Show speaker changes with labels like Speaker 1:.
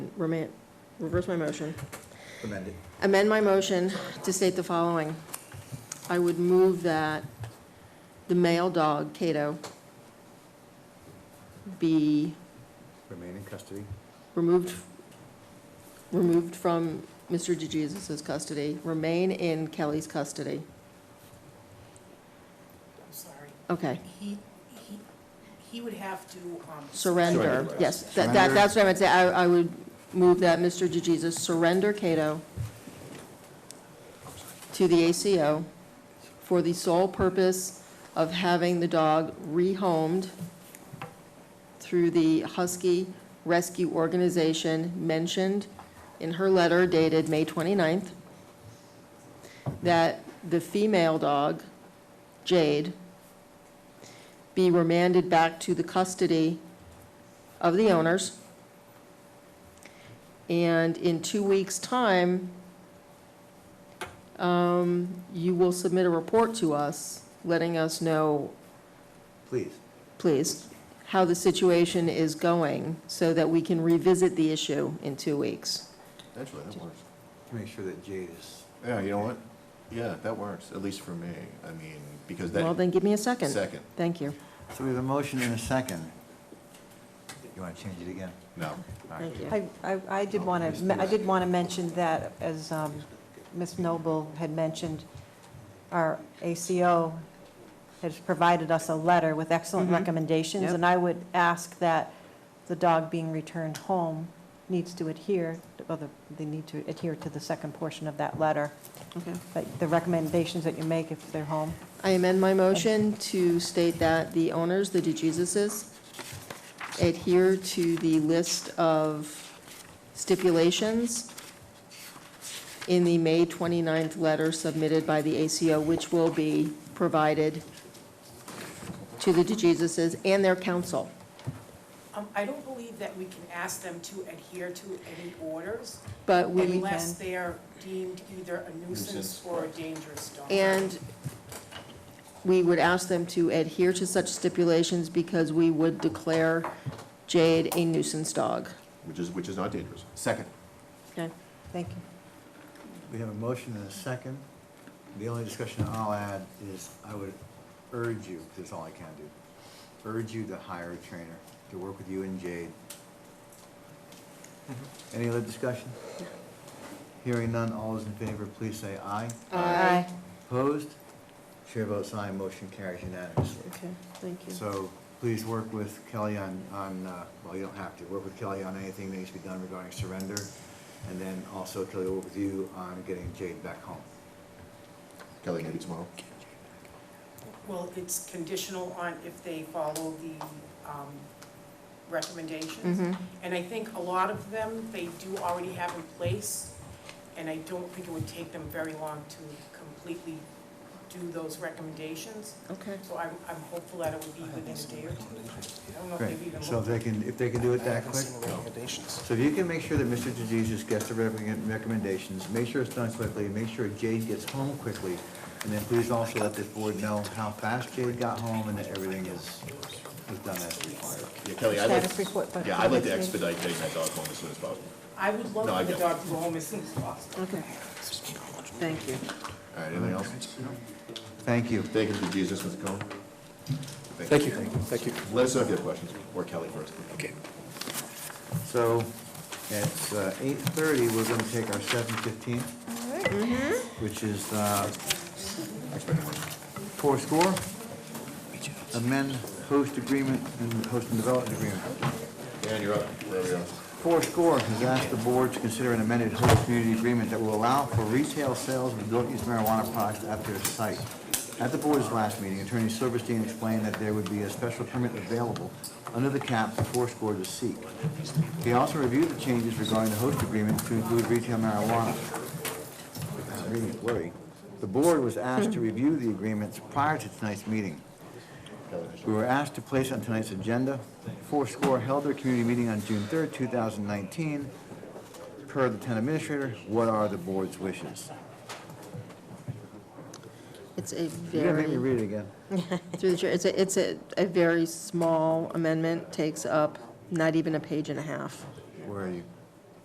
Speaker 1: rema- reverse my motion.
Speaker 2: amended.
Speaker 1: amend my motion to state the following. I would move that the male dog, Cato, be
Speaker 2: Remain in custody.
Speaker 1: removed, removed from Mr. DeJesus's custody, remain in Kelly's custody.
Speaker 3: I'm sorry.
Speaker 1: Okay,
Speaker 3: He, he, he would have to, um.
Speaker 1: surrender,
Speaker 2: Surrender.
Speaker 1: yes, that, that- that's what I meant to say. I, I would move that Mr. DeJesus surrender Cato to the ACO for the sole purpose of having the dog rehomed through the Husky Rescue Organization mentioned in her letter dated May 29th, that the female dog, Jade, be remanded back to the custody of the owners. And in two weeks' time, um, you will submit a report to us, letting us know
Speaker 2: Please.
Speaker 1: please, how the situation is going so that we can revisit the issue in two weeks.
Speaker 4: Actually, that works.
Speaker 2: Make sure that Jade is,
Speaker 4: Yeah, you know what? Yeah, that works, at least for me. I mean, because
Speaker 1: Well,
Speaker 4: that,
Speaker 1: then give me a second.
Speaker 4: second,
Speaker 1: Thank you.
Speaker 2: so we have a motion and a second. You want to change it again?
Speaker 4: no.
Speaker 2: All right.
Speaker 1: Thank you.
Speaker 5: I, I- I did want to, I did want to mention that, as um, Ms. Noble had mentioned, our ACO has provided us a letter with excellent
Speaker 1: Mhm.
Speaker 5: recommendations,
Speaker 1: Yep.
Speaker 5: and I would ask that the dog being returned home needs to adhere, or the- they need to adhere to the second portion of that letter,
Speaker 1: Okay.
Speaker 5: but the recommendations that you make if they're home.
Speaker 1: I amend my motion to state that the owners, the DeJesus's, adhere to the list of stipulations in the May 29th letter submitted by the ACO, which will be provided to the DeJesus's and their counsel.
Speaker 3: Um, I don't believe that we can ask them to adhere to any orders
Speaker 1: But we.
Speaker 3: unless they're deemed either a nuisance
Speaker 4: Nuisance,
Speaker 3: or a dangerous dog.
Speaker 1: And we would ask them to adhere to such stipulations because we would declare Jade a nuisance dog.
Speaker 4: Which is, which is not dangerous. Second.
Speaker 1: Okay.
Speaker 5: Thank you.
Speaker 2: We have a motion and a second. The only discussion I'll add is I would urge you, this is all I can do, urge you to hire a trainer to work with you and Jade.
Speaker 1: Mm-hmm.
Speaker 2: Any other discussion? Hearing none, all those in favor, please say aye.
Speaker 1: Aye.
Speaker 2: Opposed? Chair votes aye, motion carries unanimously.
Speaker 1: Okay, thank you.
Speaker 2: So please work with Kelly on, on, uh, well, you don't have to, work with Kelly on anything that needs to be done regarding surrender. And then also Kelly will work with you on getting Jade back home.
Speaker 4: Kelly, maybe tomorrow?
Speaker 3: Well, it's conditional on if they follow the, um, recommendations.
Speaker 1: Mhm.
Speaker 3: And I think a lot of them, they do already have in place, and I don't think it would take them very long to completely do those recommendations.
Speaker 1: Okay.
Speaker 3: So I'm, I'm hopeful that it would be within a day or two. I don't know if
Speaker 2: Great,
Speaker 3: they've even
Speaker 2: so if
Speaker 3: looked.
Speaker 2: they can, if they can do it that quick? So if you can make sure that Mr. DeJesus gets the recommend- recommendations, make sure it's done quickly, make sure Jade gets home quickly, and then please also let this board know how fast Jade got home and that everything is, is done as required.
Speaker 4: Yeah, Kelly, I'd like,
Speaker 5: Status report, but-
Speaker 4: yeah, I'd like to expedite getting that dog home as soon as possible.
Speaker 3: I would
Speaker 4: No, I
Speaker 3: love for the
Speaker 4: get it.
Speaker 3: dog to go home as soon as possible.
Speaker 1: Okay. Thank you.
Speaker 4: All right, anything else?
Speaker 2: Thank you.
Speaker 4: Thank you to Jesus, Mr. Cohen.
Speaker 6: Thank you, thank you.
Speaker 4: Let us know if you have questions, or Kelly first.
Speaker 6: Okay.
Speaker 2: So at uh, 8:30, we're going to take our 7:15, which is uh, four score, amend host agreement and host and development agreement.
Speaker 4: Dan, you're up, wherever you are.
Speaker 2: Four Score has asked the board to consider an amended host community agreement that will allow for retail sales of adult-use marijuana products at their site. At the board's last meeting, Attorney Silverstein explained that there would be a special permit available under the cap for Four Score to seek. He also reviewed the changes regarding the host agreement to include retail marijuana. I'm reading it blurry. The board was asked to review the agreements prior to tonight's meeting. We were asked to place on tonight's agenda, Fourscore held their community meeting on June 3rd, 2019. Per the town administrator, what are the board's wishes?
Speaker 1: It's a
Speaker 2: You're gonna make me
Speaker 1: very,
Speaker 2: read it again.
Speaker 1: through the chair, it's a, it's a, a very small amendment, takes up not even a page and a half.
Speaker 2: Where are you?